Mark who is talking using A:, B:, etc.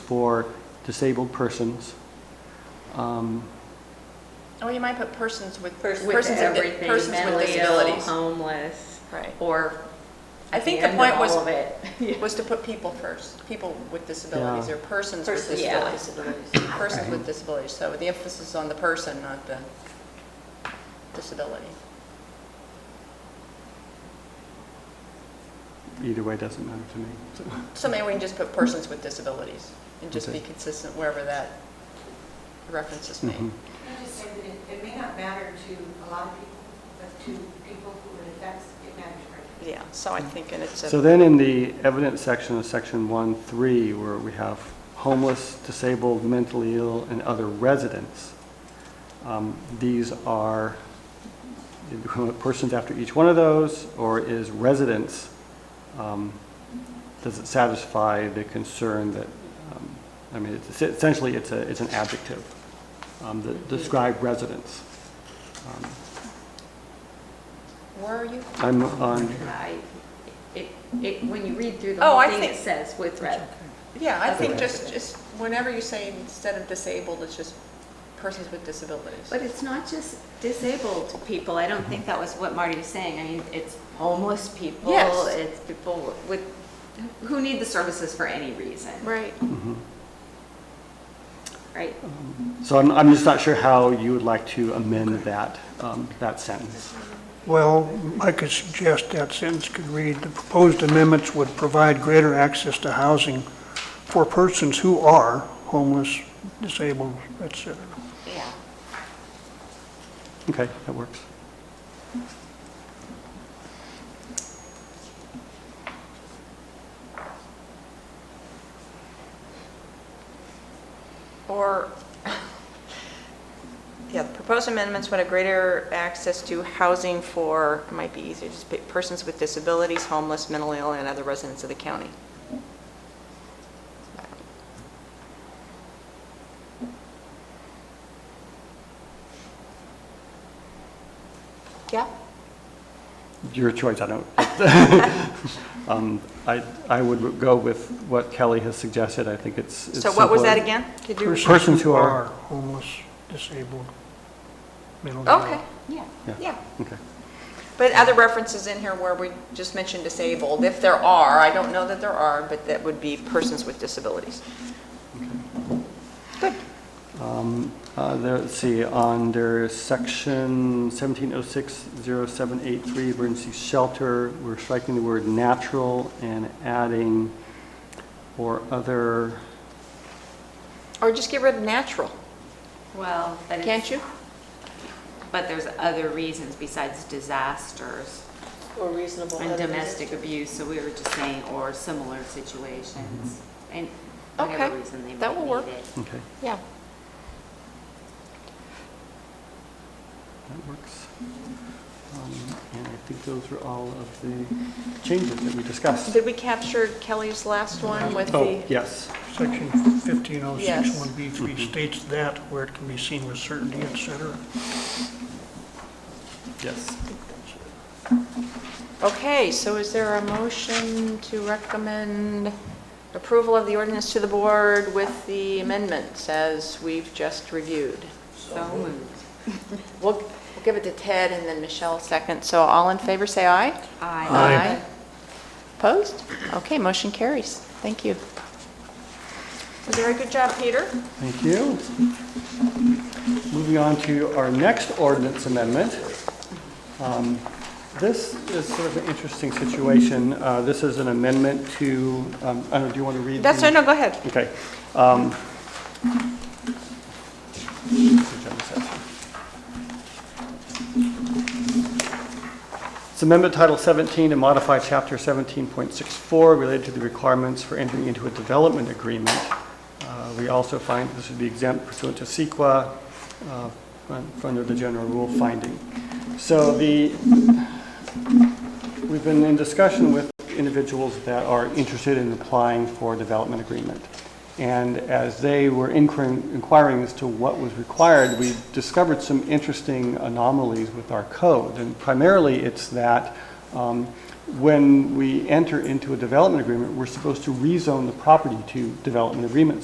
A: for disabled persons. Um,
B: Oh, you might put persons with,
C: Persons
B: persons
C: with
B: with,
C: everything,
B: persons with
C: mentally ill,
B: disabilities.
C: homeless,
B: Right.
C: or.
B: I
C: at
B: think the
C: end of
B: point was-
C: All of it. Yeah.
B: Was to put people first, people with disabilities
A: Yeah.
B: or persons with
C: Persons, yeah.
B: disabilities. Persons with
A: Right.
B: disabilities, so the emphasis is on the person, not the disability.
A: Either way, doesn't matter to me. So-
B: So maybe we can just put persons with disabilities and just be
A: Okay.
B: consistent wherever that reference is made.
A: Mhm.
D: Can I just say that it, it may not matter to a lot of people, but to people who it affects, it matters greatly.
B: Yeah, so I think, and it's a.
A: So then in the evidence section of section one, three, where we have homeless, disabled, mentally ill, and other residents, um, these are persons after each one of those, or is residents, um, does it satisfy the concern that, um, I mean, it's- essentially, it's a, it's an adjective um, that describe residents. Um,
B: Where are you?
A: I'm on,
C: I- It, it, when you read through the
B: Oh,
C: whole
B: I
C: thing, it
B: think-
C: says with red.
B: Yeah, I think
A: Okay.
B: just, just whenever you say instead of disabled, it's just persons with disabilities.
C: But it's not just disabled people. I don't think that was what Marty was saying. I mean, it's homeless people.
B: Yes.
C: It's people with, who need the services for any reason,
B: Right.
A: mhm.
C: right?
A: So I'm, I'm just not sure how you would like to amend that, um, that sentence.
E: Well, I could suggest that sentence could read, "The proposed amendments would provide greater access to housing for persons who are homeless, disabled, et cetera."
C: Yeah.
A: Okay, that works.
B: Or, yeah, the proposed amendments would have greater access to housing for, it might be easier, just put persons with disabilities, homeless, mentally ill, and other residents of the county. Yeah?
A: Your choice, I don't. Um, I, I would go with what Kelly has suggested. I think it's. it's
B: So what was that
A: simpler.
B: again? Could you?
A: Persons who are-
E: Homeless, disabled, mentally ill.
B: Okay,
C: Yeah.
B: yeah.
A: Okay.
B: But other references in here where we just mentioned disabled, if there are, I don't know that there are, but that would be persons with disabilities. Good.
A: Um, uh, there, let's see, under section 17060783, emergency shelter, we're striking the word natural and adding or other,
B: Or just get rid of natural,
C: Well, but it's-
B: can't you?
C: But there's other reasons besides disasters
F: Or reasonable.
C: and
F: other
C: domestic
F: reasons.
C: abuse, so we were just saying, or similar situations, and
B: Okay,
C: whatever reason they
B: that
C: might
B: will
C: need
B: work.
C: it.
A: okay,
B: Yeah.
A: that works. Um, And I think those were all of the changes that we discussed.
B: Did we capture Kelly's last one with
A: Oh,
B: the,
A: yes.
E: Section
B: Yes.
A: Mm-hmm.
E: 15061B3 states that where it can be seen with certainty, et cetera.
A: Yes.
B: okay, so is there a motion to recommend approval of the ordinance to the board with the amendments as we've just reviewed?
C: So moved.
B: We'll, we'll give it to Ted and then Michelle second, so all in favor, say aye.
C: I
E: Aye.
B: Opposed? Okay, motion carries. Thank you. Very good job, Peter.
A: Thank you. Moving on to our next ordinance amendment. Um, This is sort of an interesting situation. Uh, This is an amendment to, um, I don't, know, do you want to read?
B: That's,
A: the-
B: no, go ahead.
A: Okay. um, agenda section. It's amendment Title 17 to modify Chapter 17.64 related to the requirements for entering into a development agreement. Uh, We also find this would be exempt pursuant to CEQA uh, un- under the general rule finding. So the We've been in discussion with individuals that are interested in applying for a development agreement. And as they were inquiring inquiring as to what was required, we discovered some interesting anomalies with our code. And primarily, it's that um, when we enter into a development agreement, we're supposed to rezone the property to development agreement